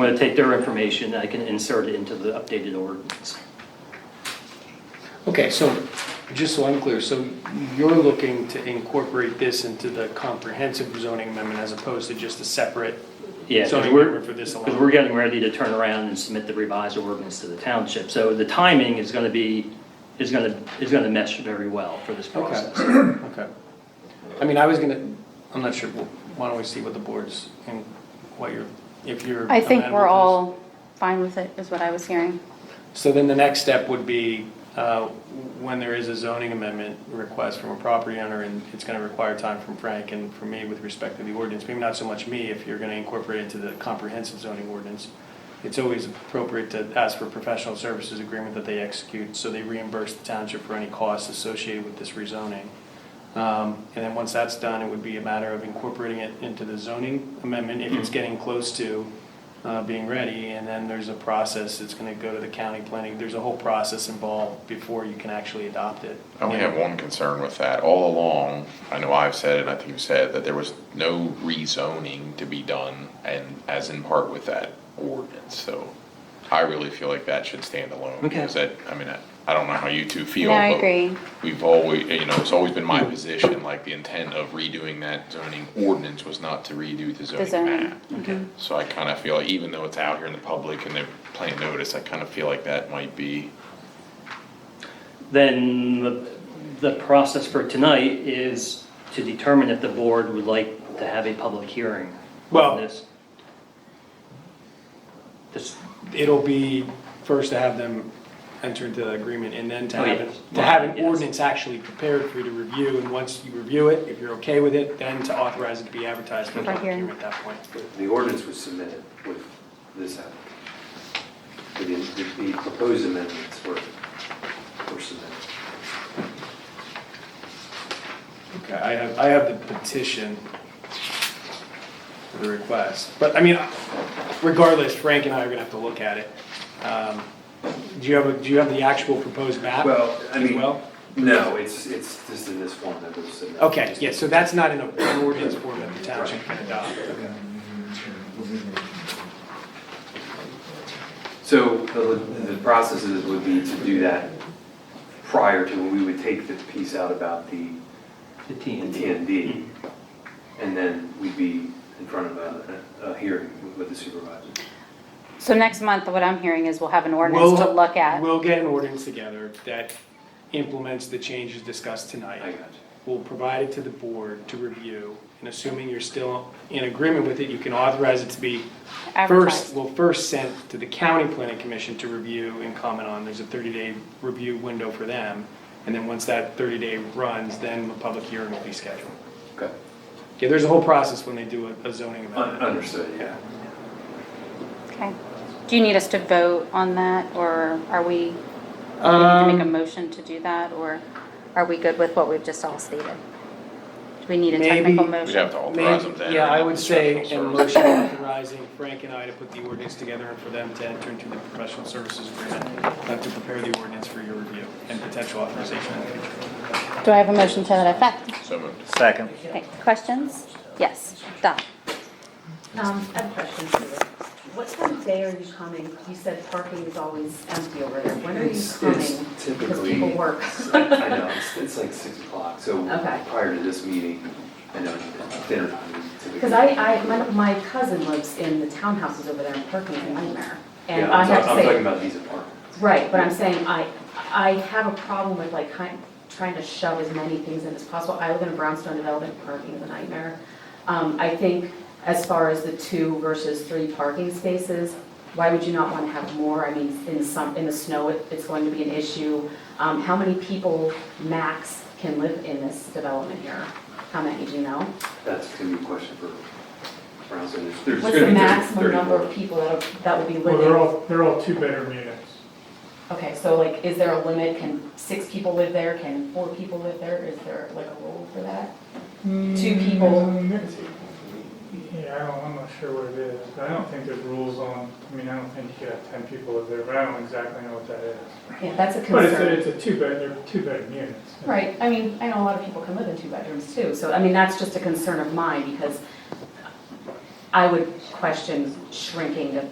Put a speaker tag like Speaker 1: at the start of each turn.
Speaker 1: I'm going to take their information, I can insert it into the updated ordinance.
Speaker 2: Okay, so, just so I'm clear, so you're looking to incorporate this into the comprehensive zoning amendment as opposed to just a separate
Speaker 1: Yeah,
Speaker 2: zoning
Speaker 1: because we're,
Speaker 2: amendment for this
Speaker 1: because
Speaker 2: alone?
Speaker 1: we're getting ready to turn around and submit the revised ordinance to the township. So the timing is going to be, is going to, is going to mesh very well for this
Speaker 2: Okay,
Speaker 1: process.
Speaker 2: okay. I mean, I was gonna, I'm not sure, why don't we see what the board's, and what you're, if you're.
Speaker 3: I think
Speaker 2: amenable to
Speaker 3: we're
Speaker 2: this.
Speaker 3: all fine with it, is what I was hearing.
Speaker 2: So then the next step would be, uh, when there is a zoning amendment request from a property owner, and it's gonna require time from Frank and from me with respect to the ordinance, maybe not so much me, if you're gonna incorporate it into the comprehensive zoning ordinance, it's always appropriate to ask for a professional services agreement that they execute, so they reimburse the township for any costs associated with this rezoning. Um, And then once that's done, it would be a matter of incorporating it into the zoning amendment if it's getting close to uh, being ready. And then there's a process, it's going to go to the county planning, there's a whole process involved before you can actually adopt it.
Speaker 4: I only have one concern with that. All along, I know I've said it, and I think you've said, that there was no rezoning to be done, and as in part with that ordinance, so I really feel like that should stand alone.
Speaker 1: Okay.
Speaker 4: Because that, I mean, I, I don't know how you two feel.
Speaker 3: No, I
Speaker 4: but
Speaker 3: agree.
Speaker 4: We've always, you know, it's always been my position, like, the intent of redoing that zoning ordinance was not to redo the zoning
Speaker 3: zoning, Mm-hmm.
Speaker 4: map. So I kinda feel, like even though it's out here in the public and they're playing notice, I kinda feel like that might be,
Speaker 1: Then the, the process for tonight is to determine if the board would like to have a public hearing
Speaker 2: Well-
Speaker 1: on this. This,
Speaker 2: It'll be first to have them enter into the agreement and then to
Speaker 1: Oh,
Speaker 2: have,
Speaker 1: yes.
Speaker 2: it- to have an
Speaker 1: Yes.
Speaker 2: ordinance actually prepared for you to review. And once you review it, if you're okay with it, then to authorize it to be advertised for
Speaker 3: For
Speaker 2: public
Speaker 3: hearing.
Speaker 2: hearing at that point.
Speaker 5: The ordinance was submitted with this app. The, the- the proposed amendments were, were submitted.
Speaker 2: Okay, I have, I have the petition for the request, but I mean, regardless, Frank and I are gonna have to look at it. Um, Do you have, a- do you have the actual proposed map?
Speaker 5: Well,
Speaker 2: Uh,
Speaker 5: I
Speaker 2: as
Speaker 5: mean,
Speaker 2: well?
Speaker 5: no, it's, it's just in this form that was submitted.
Speaker 2: Okay, yeah, so that's not in a- an ordinance form that the township can adopt.
Speaker 5: So the, the processes would be to do that prior to, when we would take the piece out about the
Speaker 1: the
Speaker 5: the
Speaker 1: TND.
Speaker 5: TND.
Speaker 2: Mm-hmm.
Speaker 5: And then we'd be in front of a, a hearing with the supervisor.
Speaker 3: So next month, what I'm hearing is we'll have an ordinance to
Speaker 2: We'll-
Speaker 3: look at.
Speaker 2: We'll get an ordinance together that implements the changes discussed tonight.
Speaker 5: I got you.
Speaker 2: We'll provide it to the board to review, and assuming you're still in agreement with it, you can authorize it to be first,
Speaker 3: Advertised.
Speaker 2: well, first sent to the county planning commission to review and comment on. There's a thirty-day review window for them, and then once that thirty-day runs, then the public hearing will be scheduled.
Speaker 5: Okay.
Speaker 2: Yeah, there's a whole process when they do a- a zoning
Speaker 5: Un-
Speaker 2: amendment.
Speaker 5: Understood, yeah.
Speaker 2: Yeah.
Speaker 3: Okay. Do you need us to vote on that, or are we, do we need to make a
Speaker 2: Um,
Speaker 3: motion to do that, or are we good with what we've just all stated? Do we need a
Speaker 2: Maybe-
Speaker 3: technical
Speaker 2: We'd
Speaker 4: we'd
Speaker 3: motion?
Speaker 4: have to authorize them to
Speaker 2: maybe-
Speaker 4: enter.
Speaker 2: Yeah, I
Speaker 4: into
Speaker 2: would
Speaker 4: the
Speaker 2: say a
Speaker 4: professional services.
Speaker 2: motion authorizing Frank and I to put the ordinance together and for them to enter into the professional services agreement, have to prepare the ordinance for your review and potential authorization in the future.
Speaker 3: Do I have a motion to that effect?
Speaker 4: So moved.
Speaker 6: Second.
Speaker 3: Okay, questions? Yes, Done.
Speaker 7: Um, I have a question for you. What time of day are you coming? You said parking is always empty over there. When are you
Speaker 5: It's-
Speaker 7: coming?
Speaker 5: it's
Speaker 7: Because
Speaker 5: typically-
Speaker 7: people work.
Speaker 5: I know, it's, it's like six o'clock, so
Speaker 7: Okay.
Speaker 5: prior to this meeting, I know dinner time typically.
Speaker 7: Because I, I, my- my cousin lives in the townhouses over there and parking is a nightmare. And
Speaker 5: Yeah,
Speaker 7: I
Speaker 5: I'm
Speaker 7: have
Speaker 5: talk- I'm talking
Speaker 7: to say,
Speaker 5: about these apartments.
Speaker 7: right, but I'm saying I, I have a problem with like kind, trying to shove as many things in as possible. I live in a brownstone development, parking is a nightmare. Um, I think as far as the two versus three parking spaces, why would you not want to have more? I mean, in some, in the snow, it- it's going to be an issue. Um, How many people max can live in this development here? How many, do you know?
Speaker 5: That's gonna be a question for Brownstone. There's- there's
Speaker 7: What's
Speaker 5: gonna
Speaker 7: the
Speaker 5: be thir-
Speaker 7: maximum
Speaker 5: 30
Speaker 7: number of
Speaker 5: more.
Speaker 7: people that, that would be
Speaker 8: Well, they're
Speaker 7: living?
Speaker 8: all, they're all two-bedroom units.
Speaker 7: Okay, so like, is there a limit? Can six people live there? Can four people live there? Is there like a rule for that? Two
Speaker 8: Hmm.
Speaker 7: people?
Speaker 8: Yeah, I don't, I'm not sure what it is, but I don't think there's rules on, I mean, I don't think you could have ten people live there, but I don't exactly know what that is.
Speaker 7: Yeah, that's a
Speaker 8: But it's, a-
Speaker 7: concern.
Speaker 8: it's a two-bed, they're two-bedroom units.
Speaker 7: Right, I mean, I know a lot of people can live in two bedrooms too, so I mean, that's just a concern of mine because I would question shrinking the